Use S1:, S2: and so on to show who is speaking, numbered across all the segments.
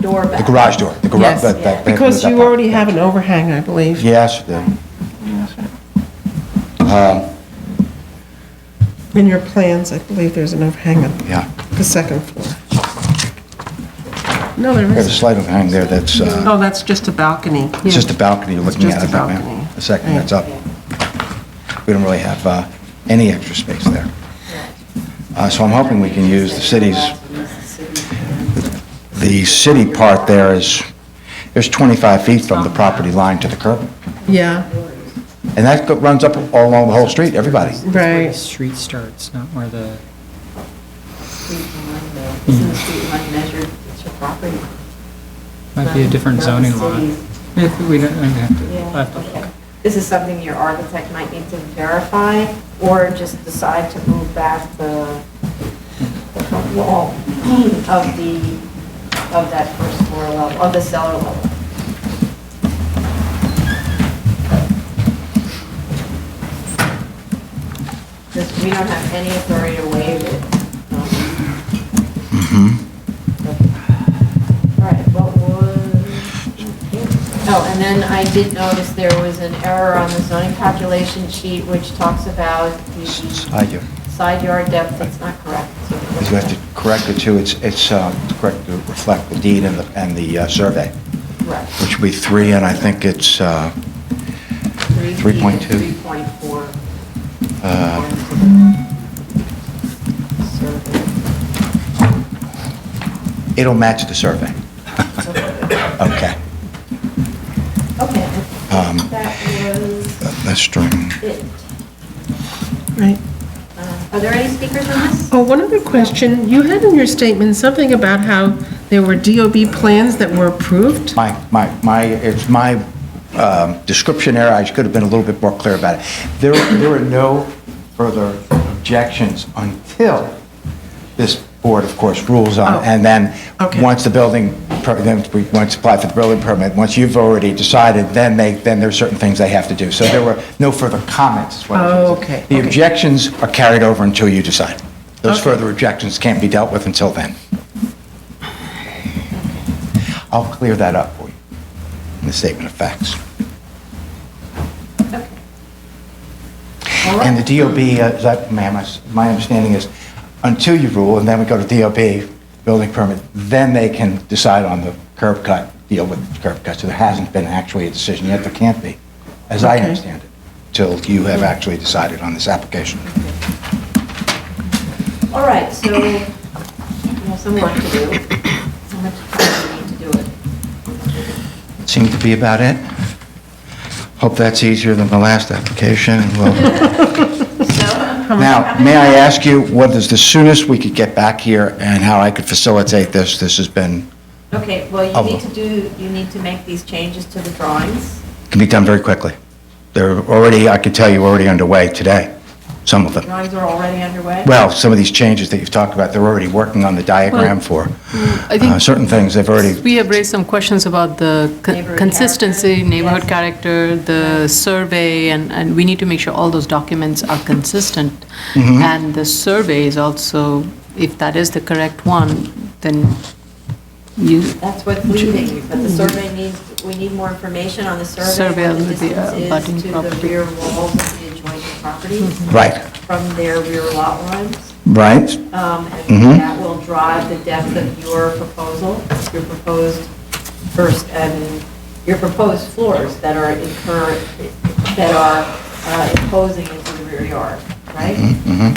S1: door back.
S2: The garage door, the garage.
S3: Yes.
S2: that- that- that-
S3: Because
S2: that
S3: you
S2: part.
S3: already have an overhang, I believe.
S2: Yes, the-
S3: In your plans, I believe there's an overhang on
S2: yeah.
S3: the second floor. No, there
S2: There's a
S3: isn't.
S2: slight overhang there that's, uh,
S3: Oh, that's just a balcony.
S2: it's just a balcony you're
S3: It's
S2: looking at.
S3: just a
S2: I think, ma'am.
S3: balcony.
S2: A second,
S3: Yeah.
S2: that's up. We don't really have uh, any extra space there. Uh, So I'm hoping we can use the city's, the city part there is, there's 25 feet from the property line to the curb.
S3: Yeah,
S2: And that go- runs up all along the whole street, everybody.
S4: where the
S3: right.
S4: street starts, not where the,
S5: Isn't the street line measured, it's your property?
S4: might be a different
S5: Not the
S4: zoning law.
S5: city's.
S4: If we don't, I have to, I have to
S5: Yeah, okay. This is something your architect might need to verify, or just decide to move back the the front wall of the, of that first floor level, of the cellar level. Because we don't have any authority to waive it.
S2: Mm-hmm.
S5: Um, All right, what was? Oh, and then I did notice there was an error on the zoning calculation sheet, which talks about the
S2: Side yard.
S5: side yard depth, that's not correct.
S2: You have to correct it too, it's, it's uh, correct to reflect the deed and the, and the uh, survey,
S5: Correct.
S2: which would be three, and I think it's, uh,
S5: Three
S2: 3.2.
S5: Three point four.
S2: Uh, it'll match the survey. Okay.
S5: Okay,
S2: Um,
S5: that was
S2: That's true.
S5: it.
S3: Right.
S5: Uh, Are there any speakers on this?
S3: Oh, one other question. You had in your statement something about how there were DOB plans that were approved?
S2: My, my, my, it's my um, description error, I could have been a little bit more clear about it. There, there are no further objections until this board, of course, rules
S3: Oh.
S2: on, and then,
S3: Okay.
S2: once the building, per- then we, once apply for the building permit, once you've already decided, then they, then there are certain things they have to do. So there were no further comments. is what I was
S3: Oh,
S2: gonna say.
S3: okay,
S2: The
S3: okay.
S2: objections are carried over until you decide. Those
S3: Okay.
S2: further objections can't be dealt with until then. I'll clear that up for you in the statement of facts.
S5: All
S2: And
S5: right.
S2: the DOB, uh, is that- ma'am, I s- my understanding is, until you rule, and then we go to DOB, building permit, then they can decide on the curb cut, deal with the curb cut. So there hasn't been actually a decision yet, there can't be, as I
S3: Okay.
S2: understand it, till you have actually decided on this application.
S5: All right, so we have some work to do. How much time do we need to do it?
S2: Seems to be about it. Hope that's easier than the last application, and we'll Now, may I ask you, what is the soonest we could get back here and how I could facilitate this? This has been,
S5: Okay, well,
S2: Oh.
S5: you need to do, you need to make these changes to the drawings.
S2: can be done very quickly. They're already, I can tell you, already underway today, some of them.
S5: Drawings are already underway?
S2: Well, some of these changes that you've talked about, they're already working on the diagram for.
S6: I
S2: Uh,
S6: think
S2: Certain things they've already,
S6: we have raised some questions about the con-
S5: Neighborhood
S6: consistency,
S5: character.
S6: neighborhood
S5: Yes.
S6: character, the survey, and, and we need to make sure all those documents are consistent.
S2: Mm-hmm.
S6: And the survey is also, if that is the correct one, then you,
S5: That's what's leading, but the survey needs, we need more information on the survey.
S6: Survey
S5: what
S6: of the, uh, abutting
S5: distance is To the
S6: property. Hmm.
S5: rear walls of the adjoining properties
S2: right,
S5: from their rear lot lines.
S2: right?
S5: Um,
S2: Mhm.
S5: And that will drive the depth of your proposal, your proposed first, and your proposed floors that are incur, that are uh, imposing into the rear yard, right?
S2: Mm-hmm,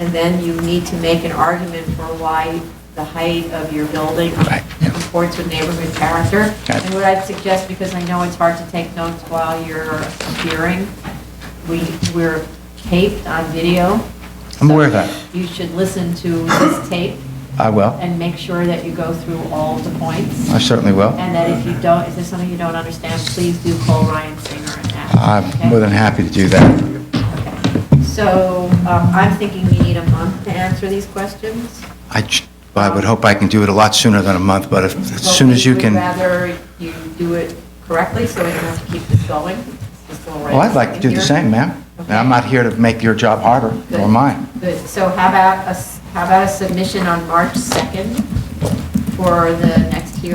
S5: And then you need to make an argument for why the height of your building
S2: Right, yeah.
S5: comports with neighborhood character.
S2: Okay.
S5: And what I'd suggest, because I know it's hard to take notes while you're appearing, we, we're taped on video.
S2: I'm aware of
S5: so
S2: that.
S5: You should listen to this tape
S2: I will.
S5: and make sure that you go through all the points.
S2: I certainly will.
S5: And that if you don't, if there's something you don't understand, please do call Ryan Singer and ask. okay?
S2: I'm more than happy to do that.
S5: So um, I'm thinking we need a month to answer these questions.
S2: I, j- I would hope I can do it a lot sooner than a month, but if- as soon as you can.
S5: We'd rather you do it correctly, so we don't have to keep this going. Just go right
S2: Well, Oh, I'd like to do the
S5: here.
S2: same, ma'am. And I'm not here to make your job harder or
S5: Good.
S2: mine.
S5: Good, so how about, a s- how about a submission on March 2nd for the next